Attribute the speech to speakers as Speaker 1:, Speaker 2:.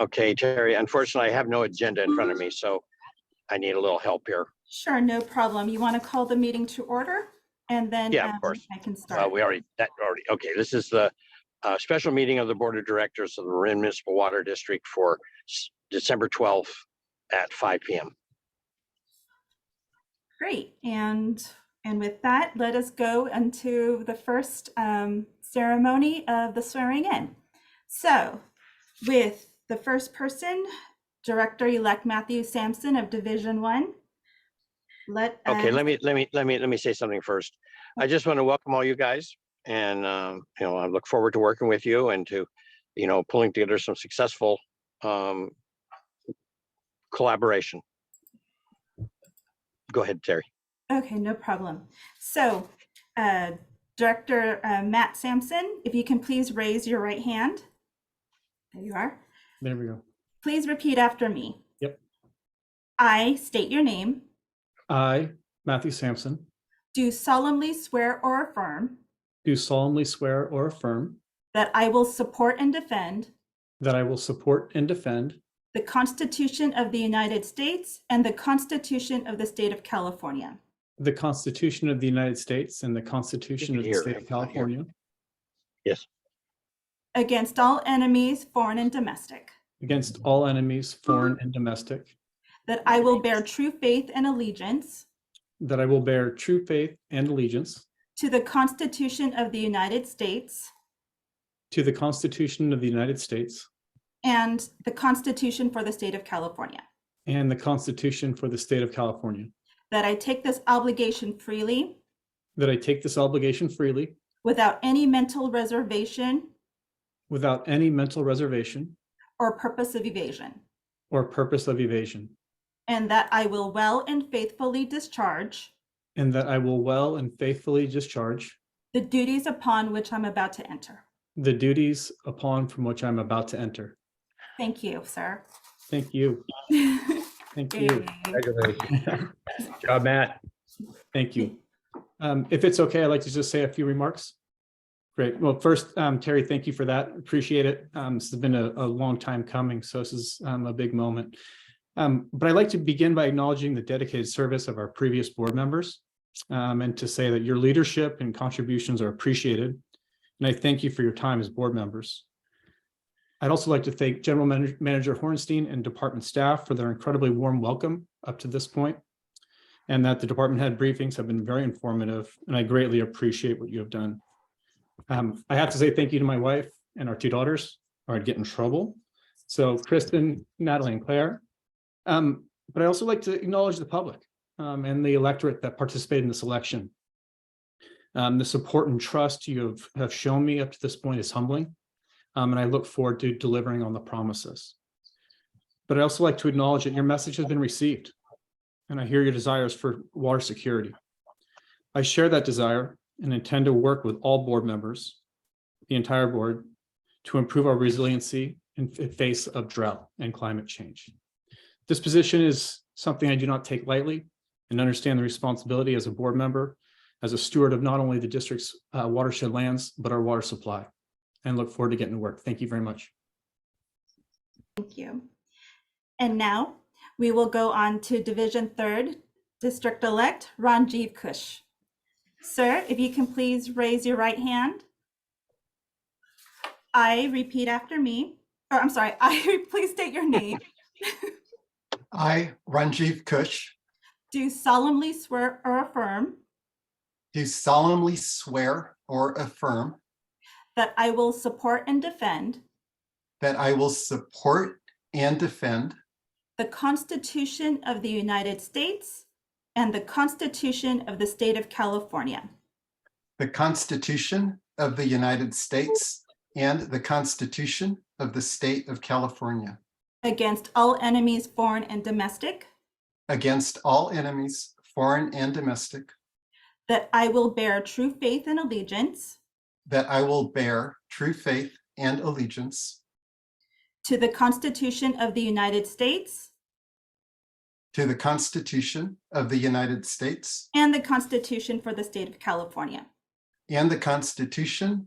Speaker 1: Okay, Terry, unfortunately, I have no agenda in front of me, so I need a little help here.
Speaker 2: Sure, no problem. You want to call the meeting to order? And then
Speaker 1: Yeah, of
Speaker 2: um,
Speaker 1: course.
Speaker 2: I can
Speaker 1: Uh,
Speaker 2: start.
Speaker 1: we already, that already, okay, this is the uh, special meeting of the Board of Directors of the Marin Municipal Water District for s- December 12th at 5 PM.
Speaker 2: Great. And, and with that, let us go into the first um, ceremony of the swearing in. So with the first person, Director-elect Matthew Sampson of Division One. Let.
Speaker 1: Okay,
Speaker 2: um,
Speaker 1: let me, let me, let me, let me say something first. I just want to welcome all you guys and, um, you know, I look forward to working with you and to, you know, pulling together some successful, um, collaboration. Go ahead, Terry.
Speaker 2: Okay, no problem. So, uh, Director uh, Matt Sampson, if you can please raise your right hand. There you are.
Speaker 3: There we go.
Speaker 2: Please repeat after me.
Speaker 3: Yep.
Speaker 2: I state your name,
Speaker 3: I, Matthew Sampson,
Speaker 2: do solemnly swear or affirm
Speaker 3: do solemnly swear or affirm
Speaker 2: that I will support and defend
Speaker 3: that I will support and defend
Speaker 2: the Constitution of the United States and the Constitution of the State of California
Speaker 3: the Constitution of the United States and the Constitution of the
Speaker 1: Here,
Speaker 3: State of
Speaker 1: I'm not here.
Speaker 3: California
Speaker 2: against all enemies, foreign and domestic,
Speaker 3: against all enemies, foreign and domestic,
Speaker 2: that I will bear true faith and allegiance
Speaker 3: that I will bear true faith and allegiance
Speaker 2: to the Constitution of the United States
Speaker 3: to the Constitution of the United States
Speaker 2: and the Constitution for the State of California,
Speaker 3: and the Constitution for the State of California,
Speaker 2: that I take this obligation freely
Speaker 3: that I take this obligation freely
Speaker 2: without any mental reservation
Speaker 3: without any mental reservation
Speaker 2: or purpose of evasion,
Speaker 3: or purpose of evasion,
Speaker 2: and that I will well and faithfully discharge
Speaker 3: and that I will well and faithfully discharge
Speaker 2: the duties upon which I'm about to enter.
Speaker 3: the duties upon from which I'm about to enter.
Speaker 2: Thank you, sir.
Speaker 3: Thank you. Thank you.
Speaker 2: Yay.
Speaker 4: Congratulations. Good Job, Matt.
Speaker 3: Thank you. Um, If it's okay, I'd like to just say a few remarks. Great. Well, first, um, Terry, thank you for that. Appreciate it. Um, This has been a, a long time coming, so this is um, a big moment. Um, But I'd like to begin by acknowledging the dedicated service of our previous board members um, and to say that your leadership and contributions are appreciated. And I thank you for your time as board members. I'd also like to thank General Manag- Manager Hornstein and department staff for their incredibly warm welcome up to this point and that the department head briefings have been very informative, and I greatly appreciate what you have done. Um, I have to say thank you to my wife and our two daughters, or I'd get in trouble. So Kristen, Natalie, and Claire. Um, but I also like to acknowledge the public um, and the electorate that participated in this election. Um, the support and trust you have, have shown me up to this point is humbling, um, and I look forward to delivering on the promises. But I also like to acknowledge that your message has been received and I hear your desires for water security. I share that desire and intend to work with all board members, the entire board, to improve our resiliency in f- face of drought and climate change. This position is something I do not take lightly and understand the responsibility as a board member, as a steward of not only the district's uh, watershed lands, but our water supply, and look forward to getting to work. Thank you very much.
Speaker 2: Thank you. And now we will go on to Division Third, District Elect Ranjiv Kush. Sir, if you can please raise your right hand. I repeat after me, or I'm sorry, I, please state your name.
Speaker 5: I, Ranjiv Kush,
Speaker 2: Do solemnly swear or affirm
Speaker 5: do solemnly swear or affirm
Speaker 2: that I will support and defend
Speaker 5: that I will support and defend
Speaker 2: the Constitution of the United States and the Constitution of the State of California
Speaker 5: the Constitution of the United States and the Constitution of the State of California
Speaker 2: against all enemies, foreign and domestic,
Speaker 5: against all enemies, foreign and domestic,
Speaker 2: that I will bear true faith and allegiance
Speaker 5: that I will bear true faith and allegiance
Speaker 2: to the Constitution of the United States
Speaker 5: to the Constitution of the United States
Speaker 2: and the Constitution for the State of California,
Speaker 5: and the Constitution